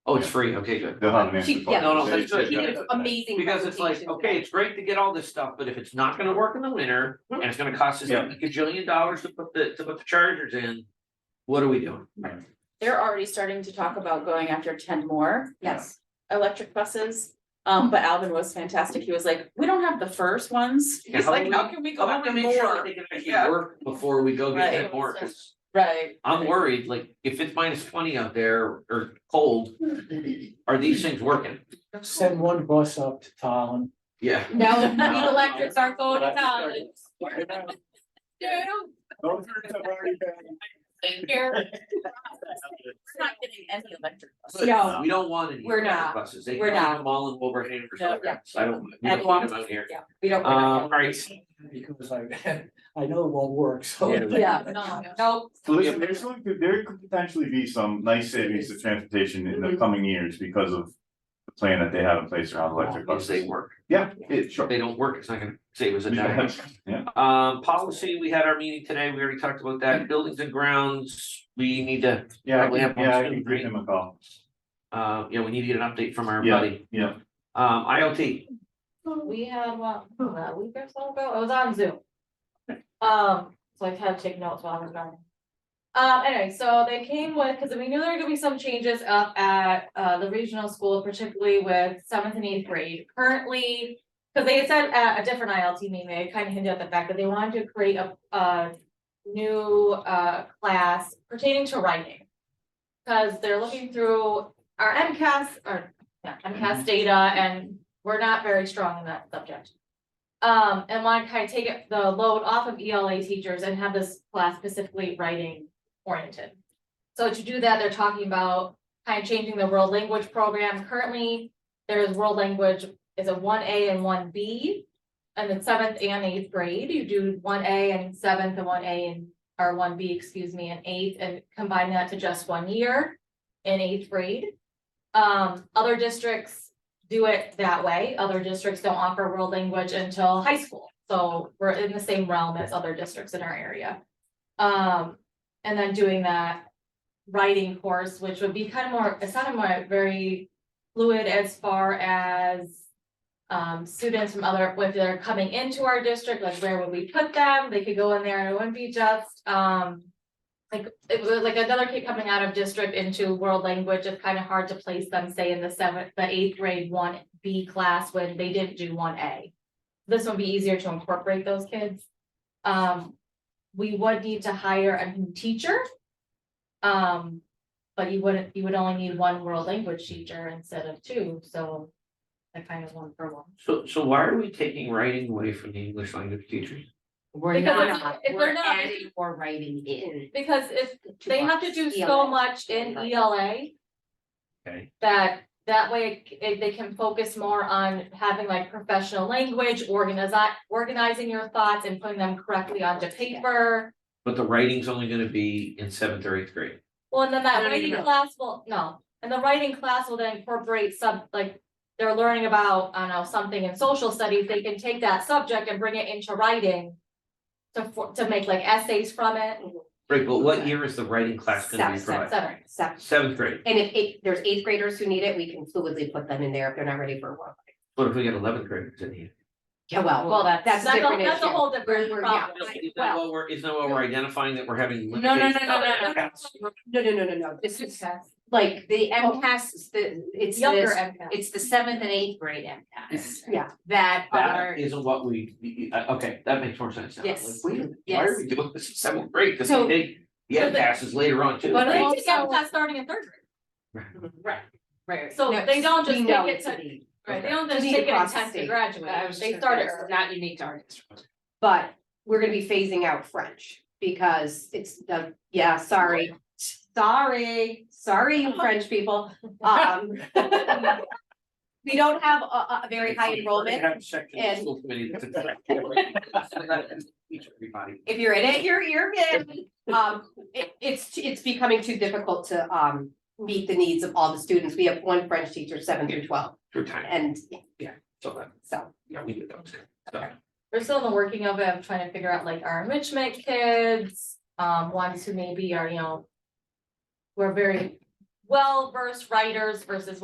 Oh, it's free, okay, good. They'll have an answer. She- for yeah, you. no, no, They- that's they- good. He did an amazing. Because it's like, presentation today. okay, it's great to get all this stuff, but if it's not gonna work in the winter, Mm-hmm. and it's gonna cost us a Yeah. gajillion dollars to put the, to put the chargers in. What are we doing? They're already starting to talk about going after ten more Yes, electric buses. Um, but Alvin was fantastic. He was like, we don't have the first ones. Yeah, He's how like, about how we- can we I go want to after make sure that more? they can Yeah. actually work before we go get Right. that more, 'cause Right. I'm worried, like, if it's minus twenty out there or cold, are these things working? Send one bus up to town. Yeah. No, No. the electrics aren't going to town. Dude, Those are- have already been- take care. We're not getting any electric buses. No. We don't want any. We're not. Buses, they We're can have not. them all in Wolverhampton or No, something, yeah. I don't, we And don't one- want them out here. Yeah. we don't. Um, all right, Because I, I know it won't work, so. Yeah. Yeah, No. no, So listen, there's going to, there could potentially be some nice savings to transportation in the Mhm. coming years because of. The plan that they have in place around electric if they buses. work, Yeah, it if sure. they don't work, it's not gonna save us a dime. Yeah. Um, policy, we had our meeting today, we already talked about that, buildings and grounds, we need to, Yeah, I Probably can- have one yeah, I soon, can give him a call. uh, you know, we need to get an update from our Yeah. buddy. Yeah, Um, IoT, We had, well, a week or so ago, I was on Zoom. Um, so I had to take notes while I was gone. Um, anyway, so they came with, because we knew there were gonna be some changes up at, uh, the regional school, particularly with seventh and eighth grade. Currently, because they had said at a different ILT meeting, they kind of hinted at the fact that they wanted to create a, a new, uh, class pertaining to writing. Because they're looking through our MCAS, or, yeah, MCAS data and we're not very strong in that subject. Um, and want to kind of take it- the load off of ELA teachers and have this class specifically writing oriented. So to do that, they're talking about kind of changing the world language program. Currently, there is world language is a one A and one B. And then seventh and eighth grade, you do one A and seventh and one A and, or one B, excuse me, and eighth, and combine that to just one year in eighth grade. Um, other districts do it that way. Other districts don't offer world language until high school. So we're in the same realm as other districts in our area. Um, and then doing that writing course, which would be kind of more, it sounded more very fluid as far as um, students from other, if they're coming into our district, like where would we put them? They could go in there and it wouldn't be just, um, like, it was like another kid coming out of district into world language, it's kind of hard to place them, say, in the seventh, the eighth grade one B class when they didn't do one A. This would be easier to incorporate those kids. Um, we would need to hire a new teacher. Um, but you wouldn't, you would only need one world language teacher instead of two, so that kind of one for one. so, so why are we taking writing away from the English language teachers? We're Because not- if- if we're we're not- adding or writing in. Because if to they our have to do so ELA. much in Right. ELA, Okay. that that way it- it- they can focus more on having like professional language, organize, organizing your thoughts and putting them correctly onto paper. But the writing's only gonna be in seventh or eighth grade. Well, and then that No, no, no, writing no. class will, no, and the writing class will then incorporate some, like, they're learning about, I don't know, something in social studies, they can take that subject and bring it into writing to for, to make like essays from it, Right, but what year is the writing class gonna be Seventh, seventh, et provided? cetera. So, Seventh grade, and if eight, there's eighth graders who need it, we can fluidly put them in there if they're not ready for one. what if we get eleventh graders in here? Yeah, well, Well, that's, that's that's a a, different that's a issue. whole different We're- we're- yeah. problem. Is that Well, what we're, is that what we're identifying that we're having? No, no, no, no, limitations? no, No, no. no, no, no, no, this is that's like the MCAS, is the, it's Younger this, MCAS. It's the seventh and eighth grade MCAS yeah, that That are, isn't what we, uh, okay, that makes more sense now. Yes. Like, wait a minute, Why are Yes. we doing this in seventh grade? Cause So- they take the So the- passes later on too, But They right? take MCAS starting in third grade, right, right. So No, they don't just we take know it it's to- a need. right? They don't To just be take it in across the tenth to state. I graduate, was they just start gonna it. say, it's Not unique to our district. But we're gonna be phasing out French because it's the, yeah, sorry, sorry, sorry, you French people, um. We don't have a, a very high enrollment. and- enrollment. If you're in it, you're, you're in. Um, it, it's, it's becoming too difficult to, um, meet the needs of all the students. We have one French teacher, seven through twelve, Through time, and so that, so. yeah, we did those. So, We're still in the working of it, I'm trying to figure out like our enrichment kids, um, ones who maybe are, you know. We're very, well-versed writers versus